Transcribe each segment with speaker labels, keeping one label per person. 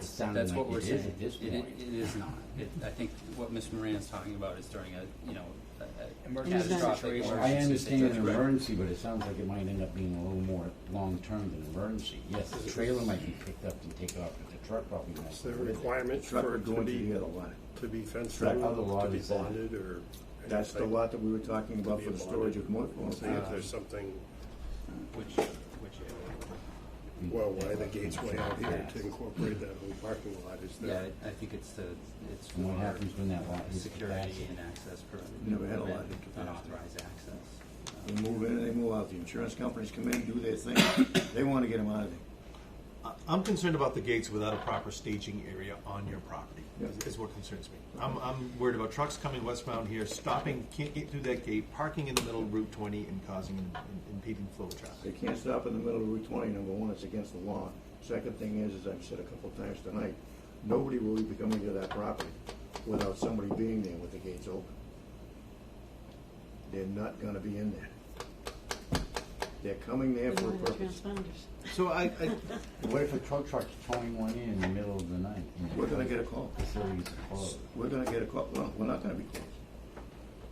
Speaker 1: sounding
Speaker 2: That's
Speaker 1: like
Speaker 2: what we're
Speaker 1: it is
Speaker 2: saying.
Speaker 1: at this
Speaker 2: It-
Speaker 1: point.
Speaker 2: It is not. It- I think what Ms. Moran is talking about is during a, you know, a- a
Speaker 3: Emergency
Speaker 2: catastrophic
Speaker 3: situation.
Speaker 1: I
Speaker 2: emergency
Speaker 1: understand an
Speaker 2: situation.
Speaker 1: emergency, but it sounds like it might end up being a little more long-term than emergency. Yes, the trailer might be picked up and taken off, but the truck probably won't.
Speaker 4: Is there a requirement
Speaker 5: Truck
Speaker 4: for
Speaker 5: would
Speaker 4: it
Speaker 5: go
Speaker 4: to
Speaker 5: into
Speaker 4: be,
Speaker 5: the other lot.
Speaker 4: to be fenced
Speaker 1: That
Speaker 4: in,
Speaker 1: other lot
Speaker 4: to be
Speaker 1: is that-
Speaker 4: bonded, or?
Speaker 5: That's the lot that we were talking about for the storage of motorhomes.
Speaker 4: See if there's something,
Speaker 2: Which, which area?
Speaker 4: well, why the gateway out here to incorporate that whole parking lot is
Speaker 2: Yeah,
Speaker 4: there?
Speaker 2: I I think it's the, it's
Speaker 1: And what
Speaker 2: for
Speaker 1: happens when that lot is
Speaker 2: Security
Speaker 1: capacity?
Speaker 2: and access permit.
Speaker 5: Never had a lot of
Speaker 2: permit,
Speaker 5: capacity.
Speaker 2: Unauthorized access.
Speaker 5: They move in, and they move out. The insurance companies come in, do their thing. They want to get them out of there.
Speaker 6: I- I'm concerned about the gates without a proper staging area on your property, is-
Speaker 5: Yeah.
Speaker 6: is what concerns me. I'm, I'm worried about trucks coming westbound here, stopping, can't get through that gate, parking in the middle of Route 20 and causing an an impeding flow of
Speaker 5: They
Speaker 6: traffic.
Speaker 5: can't stop in the middle of Route 20, number one, it's against the law. Second thing is, as I've said a couple of times tonight, nobody will be coming to that property without somebody being there with the gates open. They're not gonna be in there. They're coming there for a purpose.
Speaker 3: transponders.
Speaker 6: So I, I,
Speaker 1: What if a tow truck's towing one in in the middle of the night? and
Speaker 5: We're gonna get a call.
Speaker 1: Facilities are closed.
Speaker 5: We're gonna get a call, well, we're not gonna be closed.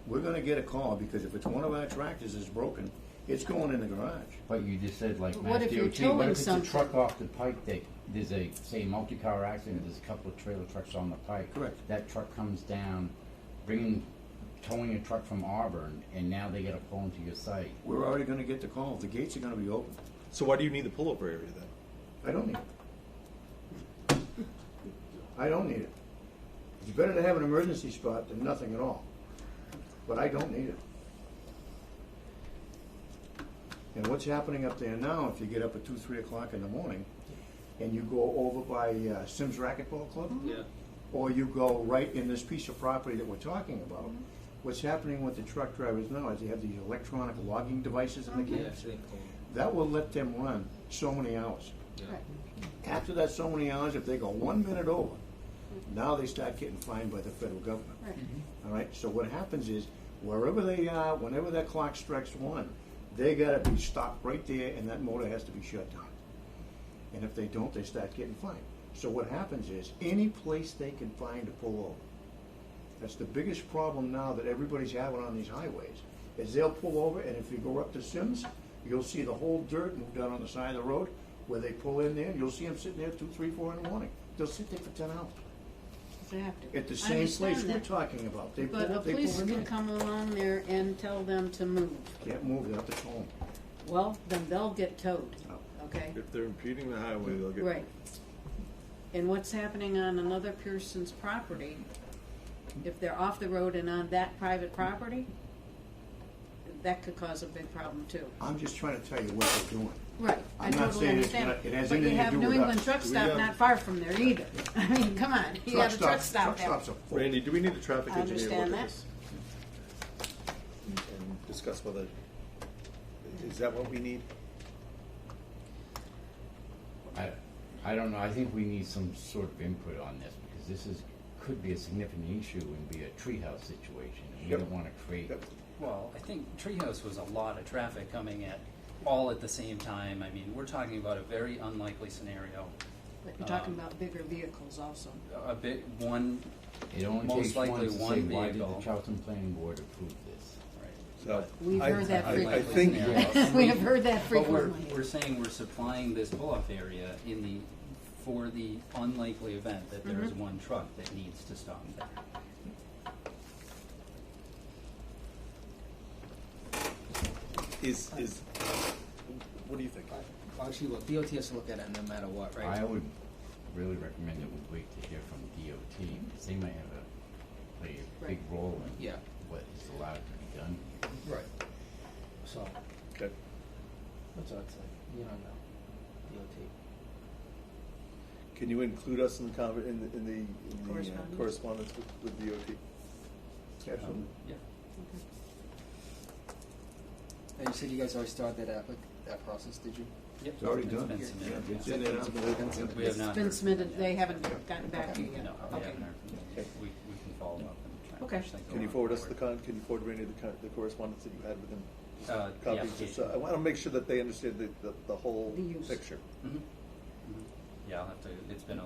Speaker 5: We're gonna get a call, because if it's one of our tractors is broken, it's going in the garage.
Speaker 1: But you just said like
Speaker 3: But
Speaker 1: Mass
Speaker 3: what if you're
Speaker 1: DOT, what
Speaker 3: towing
Speaker 1: if it's a
Speaker 3: something?
Speaker 1: truck off the pike that, there's a, say, multi-car accident, there's a couple of trailer trucks on the pike.
Speaker 5: Correct.
Speaker 1: That truck comes down, bringing, towing a truck from Auburn, and now they gotta pull into your site.
Speaker 5: We're already gonna get the call, the gates are gonna be open.
Speaker 6: so why do you need the pullover area then?
Speaker 5: I don't need it. I don't need it. It's better to have an emergency spot than nothing at all. But I don't need it. And what's happening up there now, if you get up at two, three o'clock in the morning, and you go over by uh, Sims Racquetball Club,
Speaker 2: Yeah.
Speaker 5: or you go right in this piece of property that we're talking about, what's happening with the truck drivers now is they have these electronic logging devices in the cab. That will let them run so many hours. After that so many hours, if they go one minute over, now they start getting fined by the federal government.
Speaker 3: Right.
Speaker 5: All right, so what happens is wherever they are, whenever that clock strikes one, they gotta be stopped right there and that motor has to be shut down. And if they don't, they start getting fined. So what happens is any place they can find to pull over. That's the biggest problem now that everybody's having on these highways, is they'll pull over and if you go up to Sims, you'll see the whole dirt moved out on the side of the road where they pull in there and you'll see them sitting there two, three, four in the morning. They'll sit there for ten hours
Speaker 3: Exactly.
Speaker 5: at the
Speaker 3: I
Speaker 5: same place
Speaker 3: understand
Speaker 5: we're
Speaker 3: that.
Speaker 5: talking about. They pull
Speaker 3: But a
Speaker 5: up, they pull
Speaker 3: police
Speaker 5: in
Speaker 3: can
Speaker 5: there.
Speaker 3: come along there and tell them to move.
Speaker 5: Can't move, they have to tow 'em.
Speaker 3: Well, then they'll get towed,
Speaker 5: Oh.
Speaker 3: okay?
Speaker 6: If they're impeding the highway, they'll get.
Speaker 3: Right. And what's happening on another person's property, if they're off the road and on that private property, that could cause a big problem too.
Speaker 5: I'm just trying to tell you what they're doing.
Speaker 3: Right, I
Speaker 5: I'm not
Speaker 3: totally
Speaker 5: saying it's
Speaker 3: understand.
Speaker 5: gonna- it has
Speaker 3: But you
Speaker 5: anything to
Speaker 3: have
Speaker 5: do
Speaker 3: New
Speaker 5: with
Speaker 3: England
Speaker 5: us.
Speaker 3: truck
Speaker 6: We
Speaker 3: stop
Speaker 6: have-
Speaker 3: not far from there either. I mean, come on, you have a truck
Speaker 5: stops-
Speaker 3: stop there.
Speaker 5: Truck stops are full.
Speaker 6: Randy, do we need a traffic
Speaker 3: I
Speaker 6: engineer to look
Speaker 3: understand
Speaker 6: at
Speaker 3: that.
Speaker 6: this? And discuss whether, is that what we need?
Speaker 1: I, I don't know, I think we need some sort of input on this, because this is, could be a significant issue and be a treehouse situation, and we
Speaker 6: Yep.
Speaker 1: don't wanna create.
Speaker 6: Yep.
Speaker 2: Well, I think Treehouse was a lot of traffic coming at, all at the same time. I mean, we're talking about a very unlikely scenario.
Speaker 3: But you're talking
Speaker 2: Um,
Speaker 3: about bigger vehicles also.
Speaker 2: A bit, one,
Speaker 1: It only
Speaker 2: Most
Speaker 1: takes one
Speaker 2: likely
Speaker 1: to say,
Speaker 2: one
Speaker 1: why did the
Speaker 2: vehicle."
Speaker 1: Charlton Planning Board approve this?
Speaker 6: So,
Speaker 3: We've
Speaker 6: I-
Speaker 3: heard that
Speaker 6: I- I
Speaker 3: frequently.
Speaker 6: think-
Speaker 2: Yes.
Speaker 3: We have heard that
Speaker 2: But we're,
Speaker 3: frequently.
Speaker 2: we're saying we're supplying this pull-off area in the, for the unlikely event that there is
Speaker 3: Mm-hmm.
Speaker 2: one truck that needs to stop there.
Speaker 6: Is, is, what do you think?
Speaker 7: Actually, look, DOT has to look at it no matter what, right?
Speaker 1: I would really recommend that we wait to hear from DOT, because they might have a, play a big role in
Speaker 7: Yeah.
Speaker 1: what is allowed to be done here.
Speaker 7: Right.
Speaker 2: um,
Speaker 7: So,
Speaker 6: Okay.
Speaker 7: that's what it's like, you don't know, DOT.
Speaker 6: Can you include us in the conver- in the, in the, in the uh,
Speaker 3: Correspondence?
Speaker 6: correspondence with, with DOT?
Speaker 5: Absolutely.
Speaker 2: Yeah.
Speaker 7: And you said you guys already started that applic, that process, did you?
Speaker 2: Yep.
Speaker 5: It's already done.
Speaker 2: been
Speaker 5: Yeah,
Speaker 2: submitted,
Speaker 5: it's
Speaker 2: yeah.
Speaker 5: in there now.
Speaker 2: We have not.
Speaker 3: It's been
Speaker 2: heard.
Speaker 3: submitted, they haven't gotten back to you yet.
Speaker 2: No, we
Speaker 3: Okay.
Speaker 2: haven't heard from them. We, we can follow up and try. and
Speaker 3: Okay.
Speaker 2: push things
Speaker 6: Can you
Speaker 2: along.
Speaker 7: Oh,
Speaker 6: forward us the con, can you forward Randy the con, the correspondence that you had with him?
Speaker 2: Uh, yeah.
Speaker 6: Copies, just, so- I wanna make sure that they understand the, the, the whole
Speaker 3: The use.
Speaker 6: picture.
Speaker 2: Mm-hmm. Yeah, I'll have to, it's been a